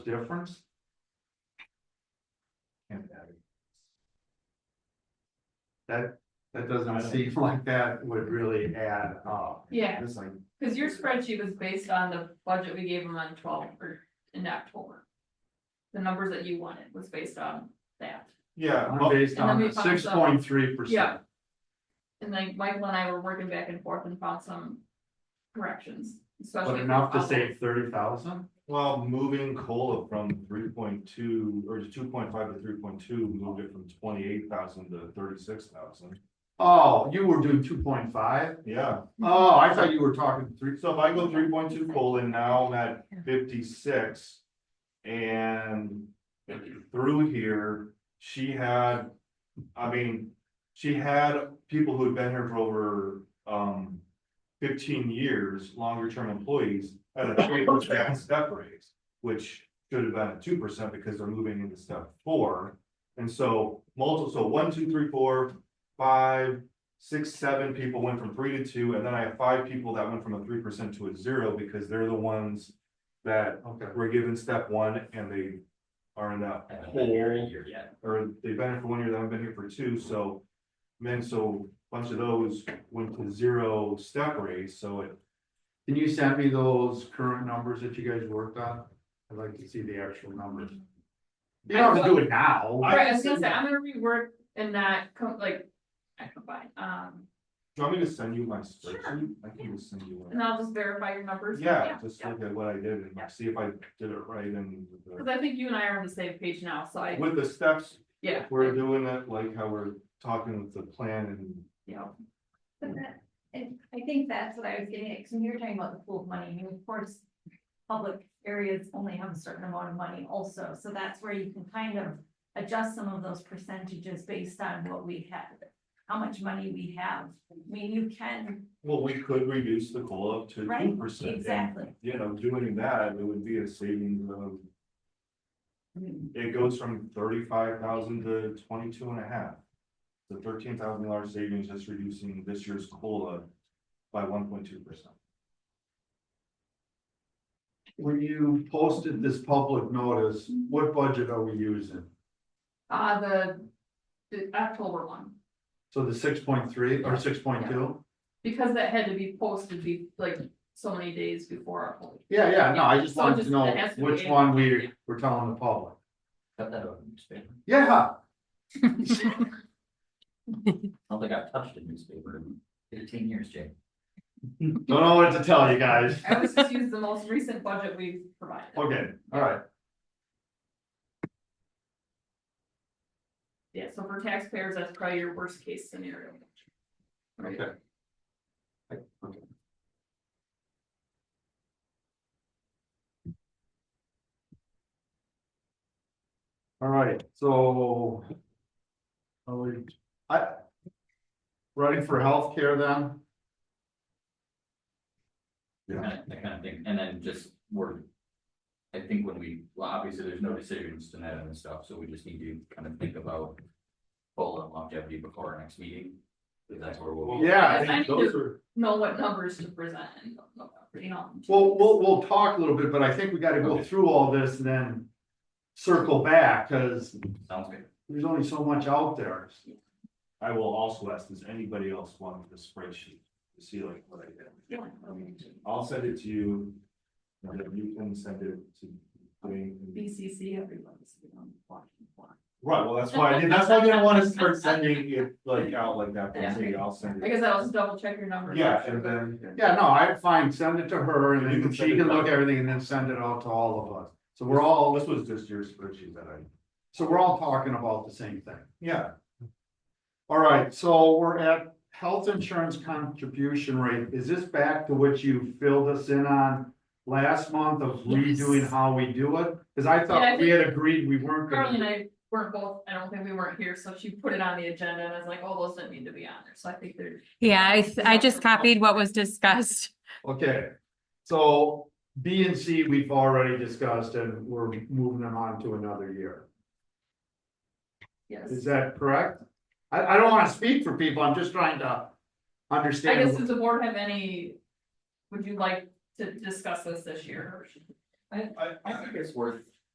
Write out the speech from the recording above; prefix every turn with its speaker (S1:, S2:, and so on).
S1: difference? Can't be. That, that doesn't seem like that would really add up.
S2: Yeah,
S1: It's like,
S2: cause your spreadsheet was based on the budget we gave them on twelve or in October. The numbers that you wanted was based on that,
S3: Yeah,
S1: I'm based
S2: And then we
S1: on
S2: found
S1: six
S2: some-
S1: point three
S2: Yeah.
S1: percent.
S2: and like Michael and I were working back and forth and found some corrections, especially.
S1: But
S2: for
S1: enough to
S2: Apollo.
S1: save thirty thousand?
S3: well, moving COLA from three point two, or two point five to three point two, moved it from twenty-eight thousand to thirty-six thousand.
S1: Oh, you were doing two point five?
S3: Yeah,
S1: Oh, I thought you were talking three,
S3: so if I go three point two COLA, now I'm at fifty-six. And through here, she had, I mean, she had people who had been here for over, um, fifteen years, longer-term employees, at a three percent step raise, which should have been a two percent because they're moving into step four. And so multiple, so one, two, three, four, five, six, seven people went from three to two, and then I have five people that went from a three percent to a zero because they're the ones that
S1: okay.
S3: we're given step one and they are in that hole, or they've been here for one year, they haven't been here for two, so. Men, so a bunch of those went to zero step raise, so it,
S1: Can you send me those current numbers that you guys worked on? I'd like to see the actual numbers. You don't have to do it now.
S2: Right, I was gonna say, I'm gonna rework and not co- like, I combine, um,
S3: do you want me to send you my
S2: Sure.
S3: spreadsheet? I can just send you one.
S2: and I'll just verify your numbers.
S3: Yeah, just
S2: yeah.
S3: look at what I did and
S2: Yeah.
S3: see if I did it right and the-
S2: Cause I think you and I are on the same page now, so I,
S3: with the steps,
S2: yeah.
S3: we're doing it like how we're talking with the plan and.
S2: Yeah,
S4: But that, and I think that's what I was getting at, because when you were talking about the pool of money, I mean, of course, public areas only have a certain amount of money also, so that's where you can kind of adjust some of those percentages based on what we have, how much money we have. I mean, you can,
S3: Well, we could reduce the COLA to
S4: Right,
S3: two percent.
S4: exactly.
S3: You know, doing that, it would be a savings of.
S4: Hmm.
S3: It goes from thirty-five thousand to twenty-two and a half. The thirteen thousand dollar savings is reducing this year's COLA by one point two percent.
S1: When you posted this public notice, what budget are we using?
S2: uh, the, the October one.
S1: So the six point three or six point two?
S2: Because that had to be posted be like so many days before our poll.
S1: Yeah, yeah, no, I just
S2: So
S1: wanted
S2: just-
S1: to know
S2: it has to be
S1: which
S2: in-
S1: one we were telling the public.
S5: Cut that out of the newspaper.
S1: Yeah,
S5: I don't think I've touched a newspaper in fifteen years, Jay.
S1: don't know what to tell you guys.
S2: I always just use the most recent budget we've provided.
S1: Okay, all right.
S2: Yeah, so for taxpayers, that's probably your worst case scenario. Right.
S1: Okay. All right, so. Are we, I. Running for healthcare then?
S5: That that kind of thing, and then just word. I think when we, well, obviously, there's no decisions tonight on this stuff, so we just need to kind of think about. Full and longevity before our next meeting, because that's where we'll. be.
S1: Yeah, I
S2: Yes, I
S1: think
S2: need
S1: those
S2: to-
S1: are,
S2: Know what numbers to present and, you know.
S1: well, we'll, we'll talk a little bit, but I think we gotta go
S5: Okay.
S1: through all this and then. Circle back, cause
S5: Sounds good.
S1: there's only so much out there.
S3: I will also ask, does anybody else want the spreadsheet to see like what I did?
S2: oh,
S3: I'll send it to you. And then you can send it to me.
S2: BCC, everyone's, you know, watching.
S3: Right, well, that's why I didn't, that's why I didn't wanna start sending it like out like that, but hey, I'll send
S2: I
S3: it.
S2: guess I'll just double check your numbers.
S3: Yeah, and then,
S1: Yeah, no, I'm fine, send it to her and
S3: You
S1: then
S3: can
S1: she
S3: send it
S1: can
S3: back.
S1: look at everything and then send it out to all of us. So we're all,
S3: this was just your spreadsheet that I,
S1: so we're all talking about the same thing.
S3: yeah,
S1: All right, so we're at health insurance contribution rate. Is this back to what you filled us in on last month of redoing how we do it? Cause I
S2: Yeah,
S1: thought
S2: I
S1: we had agreed we weren't
S2: Carly and
S1: gonna.
S2: I weren't both, I don't think we weren't here, so she put it on the agenda and I was like, oh, those didn't need to be on there, so I think they're.
S6: Yeah, I, th- I just copied what was discussed.
S1: Okay, so B and C, we've already discussed and we're moving them on to another year.
S2: Yes.
S1: Is that correct? I, I don't wanna speak for people. I'm just trying to
S2: I guess
S1: understand.
S2: does the board have any, would you like to discuss this this year?
S5: I, I think it's worth